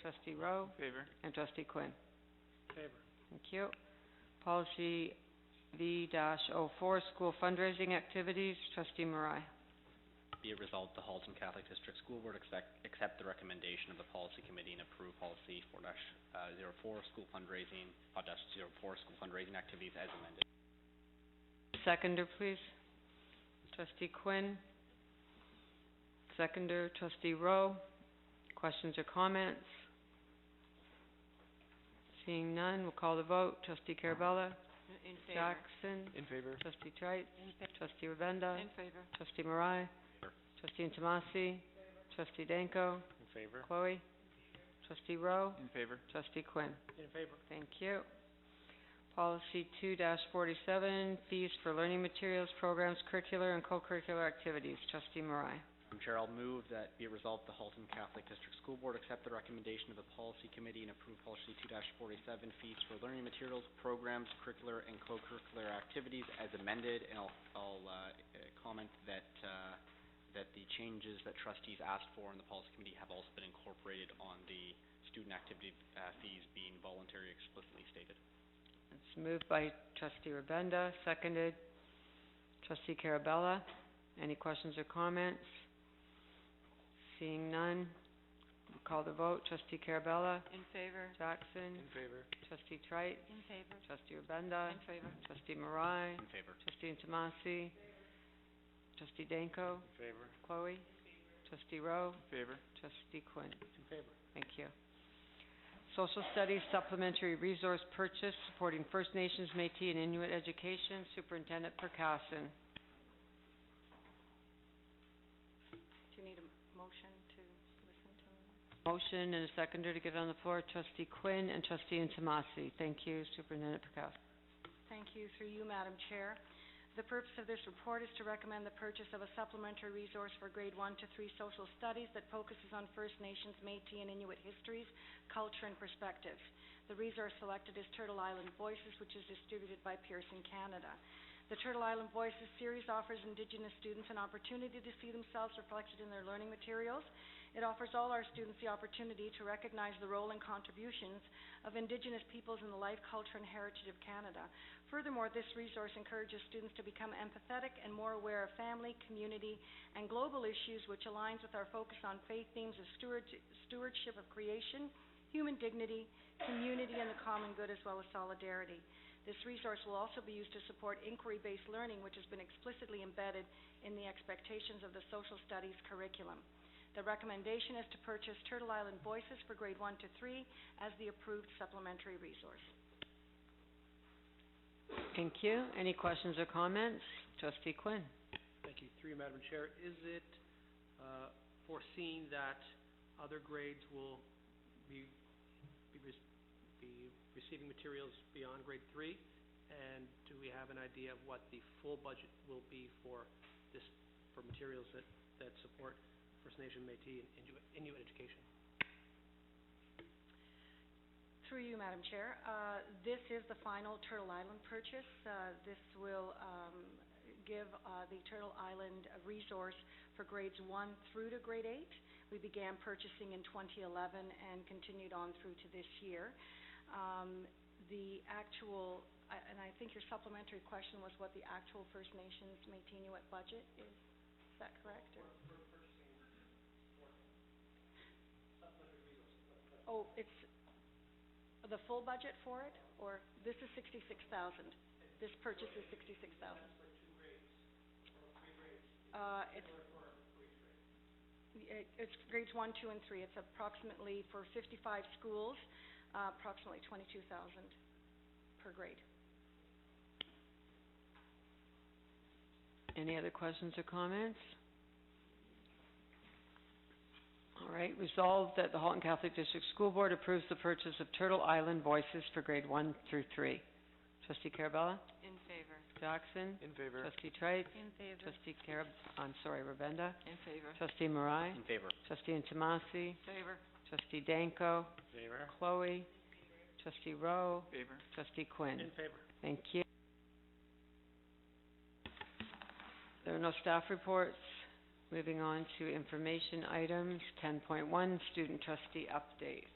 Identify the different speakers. Speaker 1: Trustee Rowe,
Speaker 2: Favor.
Speaker 1: and Trustee Quinn.
Speaker 2: Favor.
Speaker 1: Thank you. Policy V dash oh four, school fundraising activities, Trustee Marai.
Speaker 3: Be it resolved, the Halton Catholic District School Board accept, accept the recommendation of the policy committee and approve policy four dash, uh, zero four, school fundraising, five dash zero four, school fundraising activities as amended.
Speaker 1: Seconder, please. Trustee Quinn. Seconder, Trustee Rowe. Questions or comments? Seeing none, we'll call the vote. Trustee Carabella.
Speaker 2: In
Speaker 1: Jackson.
Speaker 2: In favor.
Speaker 1: Trustee Trice. Trustee Rabenda.
Speaker 2: favor.
Speaker 1: Trustee Marai. Trustee Intomasi. Trustee Danko.
Speaker 2: In favor.
Speaker 1: Chloe. Trustee Rowe.
Speaker 2: In favor.
Speaker 1: Trustee Quinn.
Speaker 2: In favor.
Speaker 1: Thank you. Policy two forty-seven, fees for learning materials, programs, curricular and co-curricular activities. Trustee Marai.
Speaker 3: Madam Chair, I'll move Um, that be it resolved, the Halton Catholic District School Board accept the recommendation of the policy committee and approve policy two dash forty-seven, fees for learning materials, programs, curricular and co-curricular activities as amended, and I'll, I'll, uh, uh, comment that, uh, that the changes that trustees asked for in the policy committee have also been incorporated on the student activity, uh, fees being voluntary explicitly stated.
Speaker 1: It's moved by trustee Rabenda, seconded trustee Carabella. Any questions or comments? Seeing none, we'll call the vote. Trustee Carabella.
Speaker 2: In favor.
Speaker 1: Jackson.
Speaker 2: In favor.
Speaker 1: Trustee Trice.
Speaker 2: In favor.
Speaker 1: Trustee Rabenda.
Speaker 2: favor.
Speaker 1: Trustee Marai.
Speaker 3: In favor.
Speaker 1: Trustee Intomasi. Trustee Danko.
Speaker 2: In favor.
Speaker 1: Chloe. Trustee Rowe.
Speaker 2: In favor.
Speaker 1: Trustee Quinn.
Speaker 2: In favor.
Speaker 1: Thank you. Social Studies Supplementary Resource Purchase Supporting First Nations, Métis, and Inuit Education, Superintendent Percassen.
Speaker 2: Do you need a motion to listen to him?
Speaker 1: Motion and a seconder to get on the floor, Trustee Quinn and Trustee Intomasi. Thank you, Superintendent Percassen.
Speaker 2: Thank you, through you, Madam Chair. The purpose of this report is to recommend the purchase of a supplementary resource for grade one to three social studies that focuses on First Nations, Métis, and Inuit histories, culture, and perspectives. The resource selected is Turtle Island Voices, which is distributed by Pearson Canada. The Turtle Island Voices series offers Indigenous students an opportunity to see themselves reflected in their learning materials. It offers all our students the opportunity to recognize the role and contributions of Indigenous peoples in the life, culture, and heritage of Canada. Furthermore, this resource encourages students to become empathetic and more aware of family, community, and global issues, which aligns with our focus on faith themes of steward- stewardship of creation, human dignity, community, and the common good, as well as solidarity. This resource will also be used to support inquiry-based learning, which has been explicitly embedded in the expectations of the social studies curriculum. The recommendation is to purchase Turtle Island Voices for grade one to three as the approved supplementary resource.
Speaker 1: Thank you. Any questions or comments? Trustee Quinn.
Speaker 4: Thank you. Through you, Madam Chair, is it uh, foreseen that other grades will be be rec- be receiving materials beyond grade three? And do we have an idea of what the full budget will be for this, for materials that that support First Nation, Métis, and Inuit- Inuit education?
Speaker 2: Through you, Madam Chair, uh, this is the final Turtle Island purchase. Uh, This will um, give uh, the Turtle Island a resource for grades one through to grade eight. We began purchasing in 2011 and continued on through to this year. Um, The actual, I- and I think your supplementary question was what the actual First Nations Métis Inuit budget is. Is that correct? or- Oh, it's, the full budget for it, or this is sixty-six thousand? This purchase is sixty-six thousand? Uh, it's... Yeah, It's grades one, two, and three. It's approximately, for fifty-five schools, uh, approximately twenty-two thousand per grade.
Speaker 1: Any other questions or comments? All right, resolved that the Halton Catholic District School Board approves the purchase of Turtle Island Voices for grade one through three. Trustee Carabella?
Speaker 2: In favor.
Speaker 1: Jackson?
Speaker 2: In favor.
Speaker 1: Trustee Trice?
Speaker 2: In favor.
Speaker 1: Trustee Carab, I'm sorry, Rabenda?
Speaker 2: In favor.
Speaker 1: Trustee Marai?
Speaker 3: In favor.
Speaker 1: Trustee Intomasi?
Speaker 2: Favor.
Speaker 1: Trustee Danko?
Speaker 4: Favor.
Speaker 1: Chloe? Trustee Rowe?
Speaker 2: Favor.
Speaker 1: Trustee Quinn?
Speaker 4: In favor.
Speaker 1: Thank you. There are no staff reports. Moving on to information items, ten point one, student trustee update.